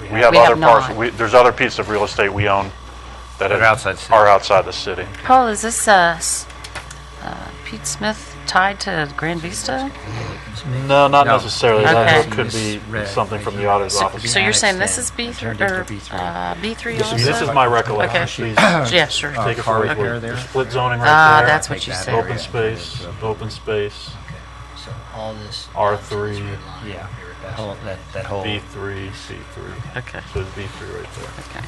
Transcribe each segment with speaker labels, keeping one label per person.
Speaker 1: We have
Speaker 2: We have
Speaker 1: other
Speaker 2: not.
Speaker 1: parcels, there's other pieces of real estate we own that
Speaker 3: That are outside the city.
Speaker 1: are outside the city.
Speaker 2: Paul, is this uh, s- uh, Pete Smith tied to Grand Vista?
Speaker 1: No, not
Speaker 3: No.
Speaker 1: necessarily.
Speaker 2: Okay.
Speaker 1: That could be
Speaker 3: Misread.
Speaker 1: something from the auditor's
Speaker 2: So-
Speaker 1: office.
Speaker 2: So you're
Speaker 3: annexed
Speaker 2: saying this
Speaker 3: in.
Speaker 2: is B,
Speaker 3: It
Speaker 2: thr-
Speaker 3: turned into
Speaker 2: or
Speaker 3: B3.
Speaker 2: uh, B3 also?
Speaker 1: This is my recollection. Please
Speaker 2: Yeah, sure.
Speaker 3: Uh,
Speaker 1: Take it
Speaker 3: car
Speaker 1: for what
Speaker 3: repair
Speaker 1: we're-
Speaker 3: there?
Speaker 1: the split zoning
Speaker 2: Ah,
Speaker 1: right there.
Speaker 2: that's what
Speaker 3: Take
Speaker 2: you
Speaker 3: that
Speaker 2: said.
Speaker 3: area.
Speaker 1: Open space, open space,
Speaker 4: Okay, so all this.
Speaker 1: R3.
Speaker 3: Yeah,
Speaker 4: Yeah.
Speaker 3: that whole, that, that whole,
Speaker 1: B3, C3.
Speaker 2: Okay,
Speaker 1: So it's B3 right there.
Speaker 2: okay.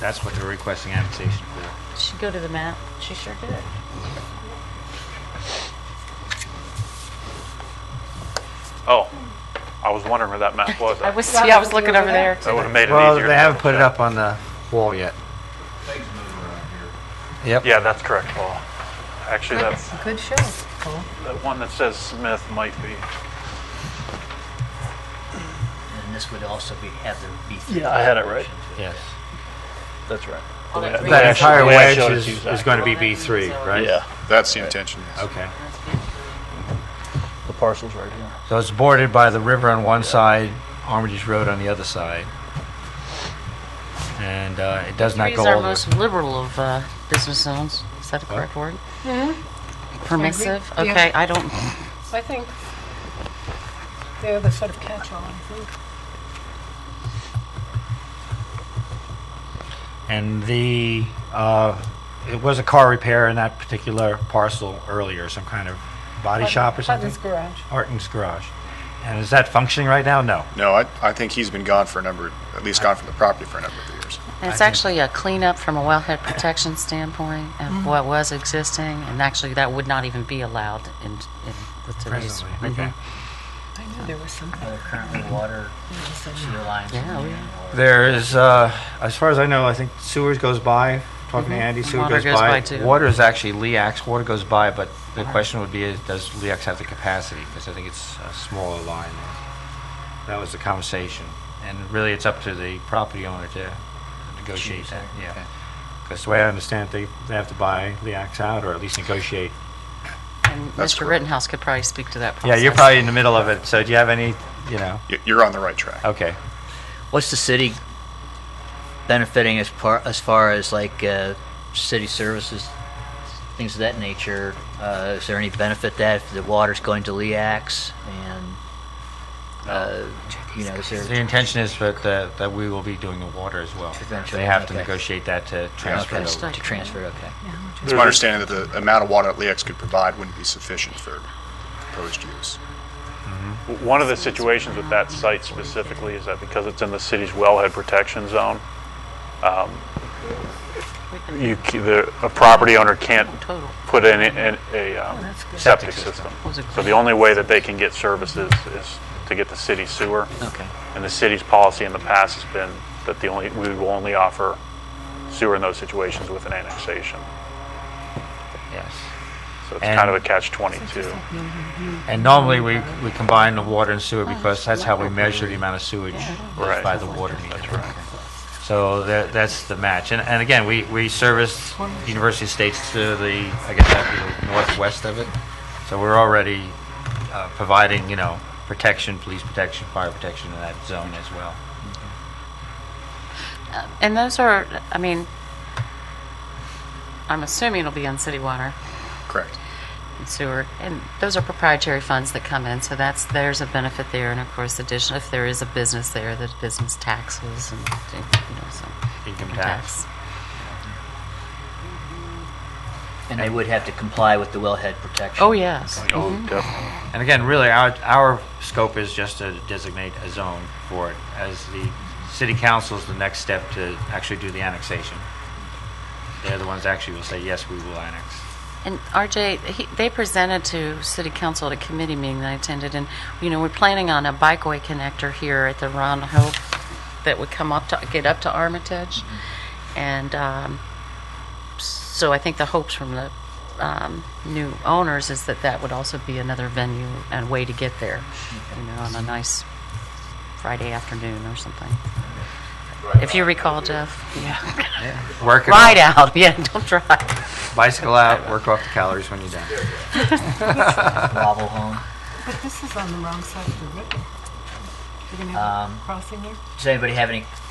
Speaker 3: that's what they're requesting annexation for.
Speaker 2: She go to the map. She sure did.
Speaker 1: Oh, I was wondering where that map was.
Speaker 2: I was, yeah, I was looking over there.
Speaker 1: That would have made it easier.
Speaker 5: Well,
Speaker 1: to
Speaker 5: they haven't put it
Speaker 1: look
Speaker 5: up on the wall yet.
Speaker 1: at. Yeah, that's correct, Paul. Actually, that's,
Speaker 2: Good show.
Speaker 1: that one that says Smith might be.
Speaker 4: And this would also be, have the B three.
Speaker 1: Yeah, I had it right.
Speaker 5: Yes.
Speaker 1: That's right.
Speaker 5: That
Speaker 1: Oh, Yeah,
Speaker 5: entire
Speaker 1: actually,
Speaker 5: wedge
Speaker 1: actually,
Speaker 5: is,
Speaker 1: it's
Speaker 5: is going to be B3, right?
Speaker 6: That's the intention, yes.
Speaker 5: Okay.
Speaker 1: the parcel's right here.
Speaker 5: So it's bordered by the river on one side, Armitage Road on the other side. And uh, it does not
Speaker 2: Three
Speaker 5: go
Speaker 2: is our
Speaker 5: all the
Speaker 2: most liberal of uh, business zones. Is that a correct word? Mm-hmm. Permissive?
Speaker 7: Yeah.
Speaker 2: Okay, I don't,
Speaker 7: I think they're the sort of catch-all, I think.
Speaker 5: And the, uh, it was a car repair in that particular parcel earlier, some kind of body shop or something?
Speaker 7: Hutton's Garage.
Speaker 5: Arton's Garage. And is that functioning right now? No.
Speaker 6: No, I, I think he's been gone for a number, at least gone from the property for a number of years.
Speaker 2: And It's
Speaker 5: think-
Speaker 2: actually a cleanup from a wellhead protection standpoint
Speaker 5: Mm-hmm.
Speaker 2: of what was existing, and actually that would not even be allowed in, in with today's.
Speaker 5: Presently, okay.
Speaker 2: Mhm.
Speaker 7: I knew there was something.
Speaker 4: There are Uh, currently water sewer lines. in
Speaker 2: Yeah, oh,
Speaker 4: there,
Speaker 2: yeah.
Speaker 4: or-
Speaker 5: There is, uh, as far as I know, I think sewers goes by, talking to Andy, sewer
Speaker 2: Mm-hmm. Water
Speaker 5: goes
Speaker 2: goes by
Speaker 5: by.
Speaker 2: too.
Speaker 5: Water is actually LEAX, water goes by, but the question would be, is does LEAX have the capacity? Because I think it's a smaller line. That was the conversation. And really, it's up to the property owner to negotiate
Speaker 4: Choose
Speaker 5: that,
Speaker 4: that, okay.
Speaker 5: yeah. Because the way I understand it, they, they have to buy LEAX out, or at least negotiate.
Speaker 2: And
Speaker 6: That's
Speaker 2: Mr.
Speaker 6: correct.
Speaker 2: Rittenhouse could probably speak to that process.
Speaker 5: Yeah, you're probably in the middle of it, so do you have any, you know,
Speaker 6: You- You're on the right track.
Speaker 5: okay.
Speaker 4: What's the city benefiting as par, as far as like, uh, city services, things of that nature? Uh, is there any benefit that if the water's going to Leax and, uh, you know, is
Speaker 5: The
Speaker 4: there?
Speaker 5: intention is that, uh, that we will be doing the water as well.
Speaker 4: Eventually,
Speaker 5: They have to
Speaker 4: okay.
Speaker 5: negotiate that to transfer it
Speaker 4: Okay,
Speaker 5: over.
Speaker 4: To transfer, okay.
Speaker 6: It's my understanding that the amount of water that LEX could provide wouldn't be sufficient for proposed use.
Speaker 1: One of the situations with that site specifically is that because it's in the city's wellhead protection zone, um, you, c- the, a property owner can't
Speaker 2: Total.
Speaker 1: put in, in a um,
Speaker 7: That's good.
Speaker 5: Septic
Speaker 1: septic system.
Speaker 5: system.
Speaker 2: Was it
Speaker 1: So the only way that they can get services is to get the city sewer.
Speaker 4: Okay.
Speaker 1: And the city's policy in the past has been that the only, we will only offer sewer in those situations with an annexation.
Speaker 5: Yes.
Speaker 1: So it's kind of a
Speaker 5: And-
Speaker 1: catch-22.
Speaker 5: And normally, we, we combine the water and sewer because that's how we measure the amount of sewage
Speaker 1: Right.
Speaker 5: is by the water meter. So that, that's the match. And, and again, we, we service University Estates to the, I guess that'd be the northwest of it. So we're already uh, providing, you know, protection, police protection, fire protection in that zone as well.
Speaker 2: Uh, And those are, I mean, I'm assuming it'll be on city water
Speaker 6: Correct.
Speaker 2: and sewer, and those are proprietary funds that come in, so that's, there's a benefit there, and of course, addition, if there is a business there, the business taxes and, you know, so.
Speaker 5: Income tax.
Speaker 4: And they would have to comply with the wellhead protection.
Speaker 2: Oh, yes.
Speaker 1: Oh, definitely.
Speaker 5: And again, really, our, our scope is just to designate a zone for it, as the city council is the next step to actually do the annexation. They're the ones that actually will say, yes, we will annex.
Speaker 2: And RJ, he, they presented to City Council at a committee meeting that I attended, and, you know, we're planning on a bikeway connector here at the Ron Hope that would come up to, get up to Armitage. And, um, so I think the hopes from the, um, new owners is that that would also be another venue and way to get there, you know, on a nice Friday afternoon or something. If you recall, Jeff, yeah,
Speaker 5: Work it
Speaker 2: ride
Speaker 5: out,
Speaker 2: out, yeah, don't drive.
Speaker 5: bicycle out, work off the calories when you're done.
Speaker 4: Wobble home.
Speaker 7: But this is on the wrong side of the river. You're going to have
Speaker 4: Um,
Speaker 7: a crossing there?
Speaker 4: Does anybody have any